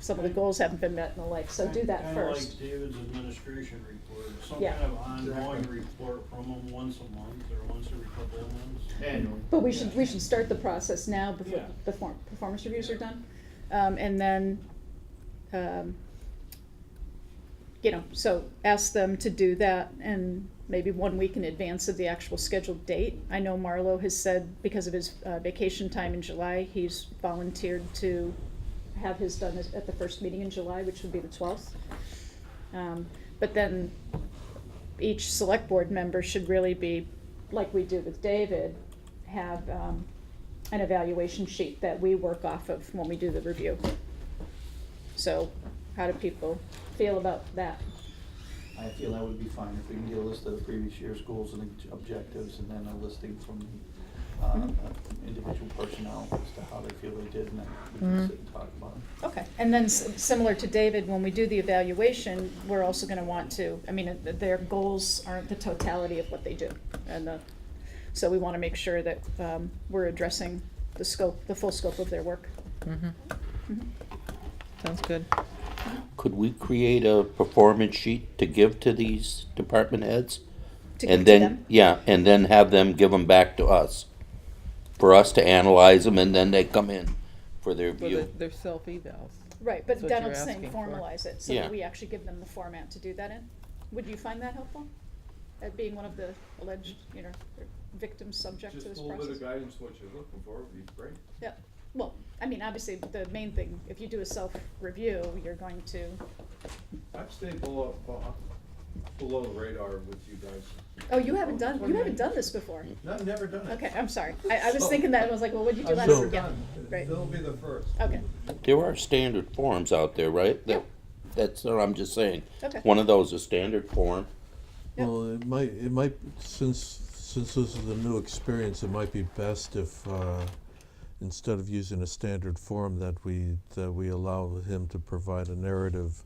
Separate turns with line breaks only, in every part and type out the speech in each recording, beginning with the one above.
some of the goals haven't been met and the like, so do that first.
Kind of like David's administration report, some
Yeah.
kind of ongoing report from them once a month or once every couple of months.
Annually.
But we should, we should start the process now before
Yeah.
the form, performance reviews are done. Um, and then, um, you know, so ask them to do that and maybe one week in advance of the actual scheduled date. I know Marlo has said because of his uh, vacation time in July, he's volunteered to have his done at- at the first meeting in July, which would be the twelfth. Um, but then each select board member should really be, like we do with David, have, um, an evaluation sheet that we work off of when we do the review. So, how do people feel about that?
I feel that would be fine if we can get a list of the previous year's goals and objectives and then a listing from the uh,
Mhm.
individual personnel as to how they feel they did and then we can
Mhm.
sit and talk about it.
Okay, and then s- similar to David, when we do the evaluation, we're also gonna want to, I mean, uh, their goals aren't the totality of what they do. And the, so we wanna make sure that, um, we're addressing the scope, the full scope of their work.
Mhm.
Mhm.
Sounds good.
Could we create a performance sheet to give to these department heads?
To give
and
to
then
them.
yeah, and then have them give them back to us for us to analyze them, and then they come in for their
Well,
view.
they're, they're self evals.
Right, but
That's what you're
Donald's saying
asking for.
formalize it, so
Yeah.
that we actually give them the format to do that in. Would you find that helpful? That being one of the alleged, you know, victims subject to this
Just a little bit of
process?
guidance, what you're looking for would be great.
Yeah, well, I mean, obviously, the main thing, if you do a self-review, you're going to,
I've stayed below, below- below the radar with you guys.
oh, you haven't done, you haven't
Twenty-nine.
done this before.
No, I've never done it.
Okay, I'm sorry. I, I was
So-
thinking that, I was like, well, what'd you do
I've
last?
never
yeah,
done it.
right.
They'll be the first.
Okay,
There are standard forms out there, right? That, That's what I'm just saying.
Okay.
One of those is standard form.
Yep.
Well, it might, it might, since, since this is a new experience, it might be best if, uh, instead of using a standard form, that we, that we allow him to provide a narrative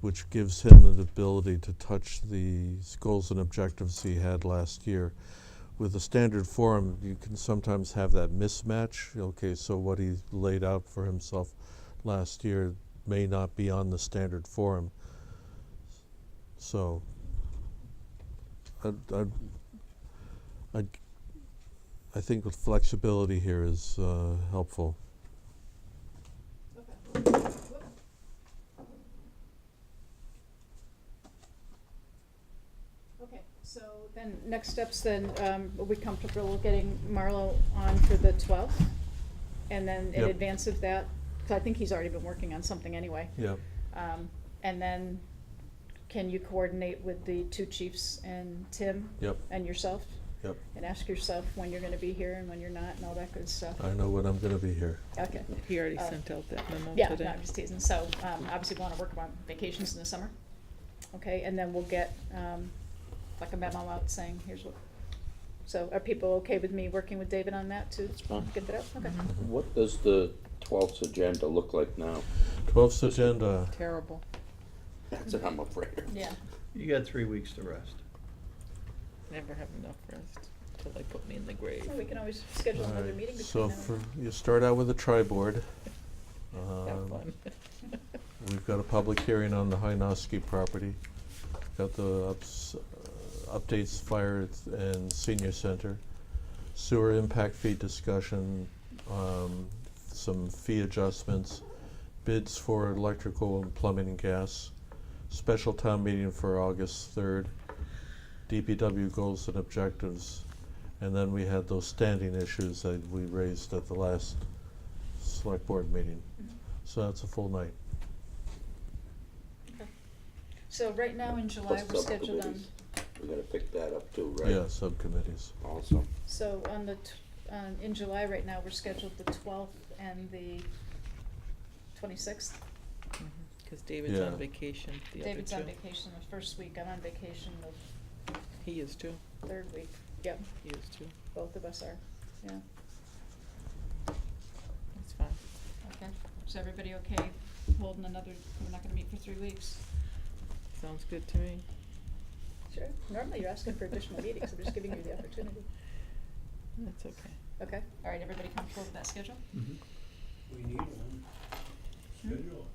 which gives him the ability to touch the s- goals and objectives he had last year. With a standard form, you can sometimes have that mismatch, okay, so what he laid out for himself last year may not be on the standard form. So, I, I, I, I think with flexibility here is uh, helpful.
okay. So then, next steps then, um, are we comfortable getting Marlo on for the twelfth? And then in
Yep.
advance of that, because I think he's already been working on something anyway.
Yep.
Um, and then, can you coordinate with the two chiefs and Tim?
Yep.
And yourself?
Yep.
And ask yourself when you're gonna be here and when you're not and all that good stuff?
I know when I'm going to be here.
Okay.
He already
Uh,
sent out that memo
Yeah, no,
today.
I'm just teasing. So, um, obviously we wanna work on vacations in the summer. Okay, and then we'll get, um, like a memo out saying, here's what. So are people okay with me working with David on that to
fine.
get that out? Okay.
Mm-hmm.
Mhm.
What does the twelfth agenda look like now?
12th agenda.
Terrible.
That's what I'm afraid of.
Yeah.
You got three weeks to rest.
Never have enough rest till they put me in the grave.
Well, we can always schedule
All
another
right,
meeting between
So
now
for,
and.
you start out with a triboard.
Have
Um,
fun.
We've got a public hearing on the Hynoski property. Got the ups, uh, updates, fire and senior center, sewer impact fee discussion, um, some fee adjustments, bids for electrical and plumbing and gas, special town meeting for August third, DPW goals and objectives, and then we had those standing issues that we raised at the last select board meeting.
Mm-hmm.
So that's a full night.
Okay. So right now in July,
Plus
we're scheduled um, on,
subcommittees. We gotta pick that up too, right?
Yeah, subcommittees.
Awesome.
so on the, tw- on, in July right now, we're scheduled the twelfth and the twenty-sixth.
Because Mhm. David's
Yeah.
on vacation. The other
David's on
two.
vacation the first week, I'm on vacation the
He is too.
third week. Yep,
He is too.
both of us are, yeah.
That's fine.
Okay. Is everybody okay holding another, we're not gonna meet for three weeks?
Sounds good to me.
Sure, normally you're asking for additional meetings, I'm just giving you the opportunity.
That's okay.
Okay, all right, everybody comfortable with that schedule?
We need one. Schedule.